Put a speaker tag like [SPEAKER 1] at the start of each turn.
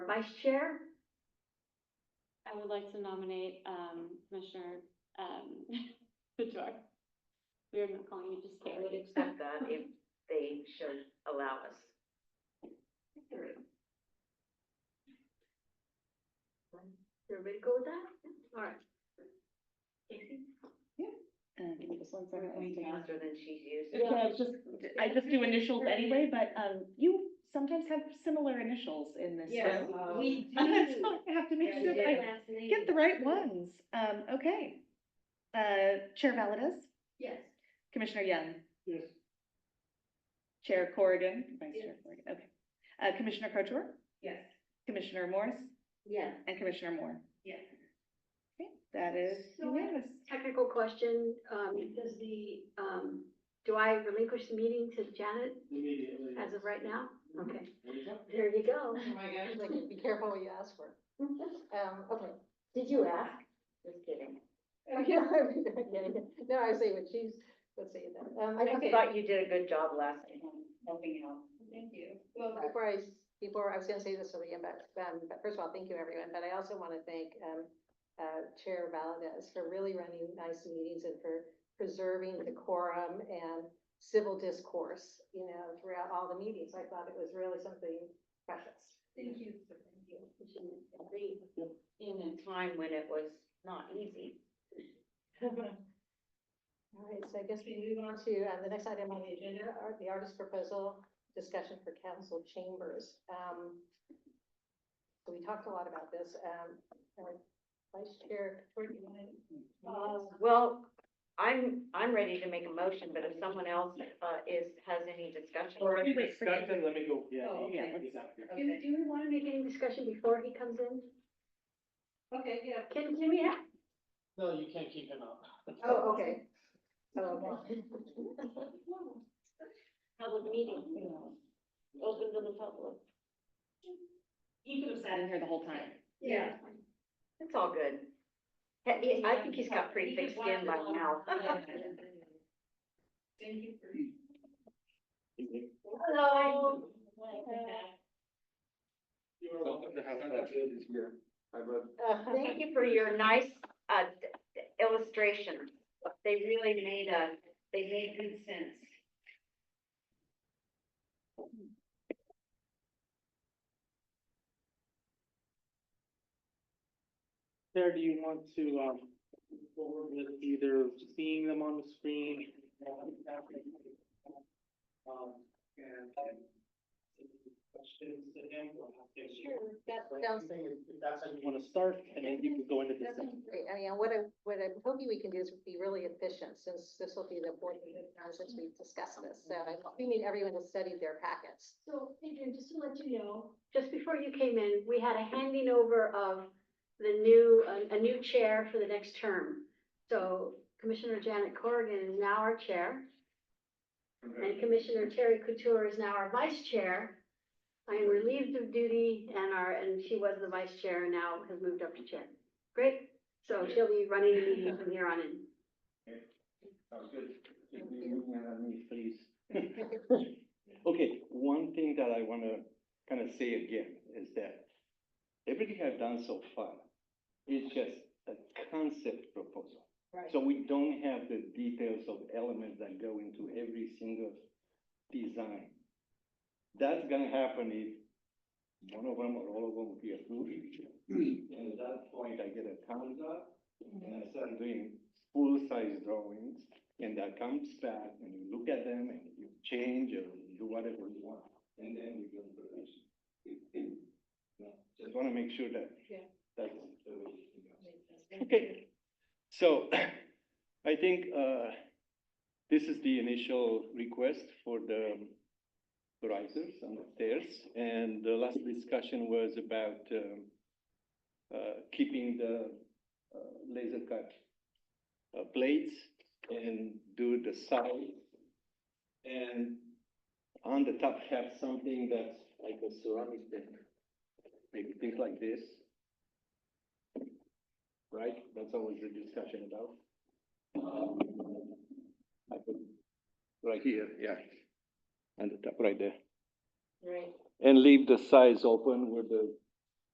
[SPEAKER 1] vice chair?
[SPEAKER 2] I would like to nominate, um, Commissioner, um, Fedor. We are not calling you just
[SPEAKER 3] I would
[SPEAKER 2] Carrie.
[SPEAKER 3] accept that if they should allow us.
[SPEAKER 1] Everybody go with that? All right. Casey?
[SPEAKER 4] Uh, give me just one second.
[SPEAKER 3] We
[SPEAKER 4] I'll
[SPEAKER 3] faster than she's used.
[SPEAKER 4] take out- Yeah, just, I just do initials anyway, but, um, you sometimes have similar initials in this
[SPEAKER 1] Yes,
[SPEAKER 4] room.
[SPEAKER 1] we
[SPEAKER 4] So I have to make
[SPEAKER 1] And
[SPEAKER 4] sure that I
[SPEAKER 1] last name.
[SPEAKER 4] get the right ones. Um, okay. Uh, Chair Valdez,
[SPEAKER 1] Yes.
[SPEAKER 4] Commissioner Young,
[SPEAKER 5] Yes.
[SPEAKER 4] Chair Corrigan, Vice
[SPEAKER 1] Yes.
[SPEAKER 4] Chair Corrigan, okay. Uh, Commissioner Couture,
[SPEAKER 1] Yes.
[SPEAKER 4] Commissioner Morris,
[SPEAKER 1] Yes.
[SPEAKER 4] and Commissioner Moore.
[SPEAKER 1] Yes.
[SPEAKER 4] Okay, that is
[SPEAKER 1] So I have
[SPEAKER 4] unanimous.
[SPEAKER 1] Technical question, um, does the, um, do I relinquish the meeting to Janet
[SPEAKER 5] Immediately.
[SPEAKER 1] as of right now? Okay,
[SPEAKER 5] Yep.
[SPEAKER 1] there you go.
[SPEAKER 6] Oh my gosh, like, be careful what you ask for. Um, okay, did you ask?
[SPEAKER 3] Just kidding.
[SPEAKER 6] Okay, I'm kidding. No, I see what she's, let's see that. Um, I,
[SPEAKER 3] I
[SPEAKER 6] okay,
[SPEAKER 3] thought you did a good job last time, helping out.
[SPEAKER 6] Thank you. Well, before I, s- before, I was gonna say this over again, but, um, but first of all, thank you everyone, but I also wanna thank, um, uh, Chair Valdez for really running nice meetings and for preserving decorum and civil discourse, you know, throughout all the meetings. I thought it was really something precious.
[SPEAKER 1] Thank you.
[SPEAKER 3] In a time when it was not easy.
[SPEAKER 6] All right, so I guess we move on to uh, the next item on the agenda, are the artist proposal discussion for council chambers. Um, So we talked a lot about this. um, uh, Vice Chair, Tori, do you want to?
[SPEAKER 3] Well, I'm, I'm ready to make a motion, but if someone else, uh, is, has any discussion.
[SPEAKER 4] Or-
[SPEAKER 5] Already discussed and let me go, yeah.
[SPEAKER 1] Oh,
[SPEAKER 4] okay.
[SPEAKER 5] yeah, exactly.
[SPEAKER 1] Do, do we want to make any discussion before he comes in?
[SPEAKER 6] Okay, yeah.
[SPEAKER 1] Can, can we have?
[SPEAKER 5] No, you can't keep him up.
[SPEAKER 6] Oh, okay. Oh, okay.
[SPEAKER 3] Public meeting, open to the public.
[SPEAKER 4] He could have sat in here the whole time.
[SPEAKER 1] Yeah.
[SPEAKER 3] It's all good. He- I think he's got pretty thick skin by now. Hello.
[SPEAKER 5] Welcome to House of Representatives here. I read
[SPEAKER 6] Uh,
[SPEAKER 3] Thank you for your nice uh, illustration. They really made a, they made good sense.
[SPEAKER 7] There, do you want to, um, move forward with either seeing them on the screen? Um, and questions to him?
[SPEAKER 6] Sure, that sounds
[SPEAKER 7] If that's how you want to start, and then you can go into
[SPEAKER 6] That
[SPEAKER 7] discussion.
[SPEAKER 6] sounds great. I mean, what I, what I'm hoping we can do is be really efficient, since this will be the fourth time since we've discussed this. So I we need everyone to study their packets.
[SPEAKER 1] So Adrian, just to let you know, just before you came in, we had a handing over of the new, a- a new chair for the next term. So Commissioner Janet Corrigan is now our chair, and Commissioner Terry Couture is now our vice chair. I am relieved of duty and our, and she was the vice chair and now has moved up to chair. Great, so she'll be running the meeting from here on in.
[SPEAKER 5] Sounds good. Keep me moving on me, please.
[SPEAKER 8] Okay, one thing that I wanna kinda say again is that everything I've done so far is just a concept proposal.
[SPEAKER 6] Right.
[SPEAKER 8] So we don't have the details of elements that go into every single design. That's gonna happen if one of them or all of them be approved. And at that point, I get a thumbs up and I start doing full-size drawings. And that comes back and you look at them and you change or you do whatever you want. And then you go to production. No, Just wanna make sure that.
[SPEAKER 6] Yeah.
[SPEAKER 8] That's the way it goes. Okay, so I think uh, this is the initial request for the risers and the stairs. And the last discussion was about um, uh, keeping the uh, laser cut uh, plates and do the side. And on the top have something that's like a ceramic thing, maybe things like this. Right, that's always the discussion about. Um, I put- Right here, yeah, on the top, right there.
[SPEAKER 3] Right.
[SPEAKER 8] And leave the sides open where the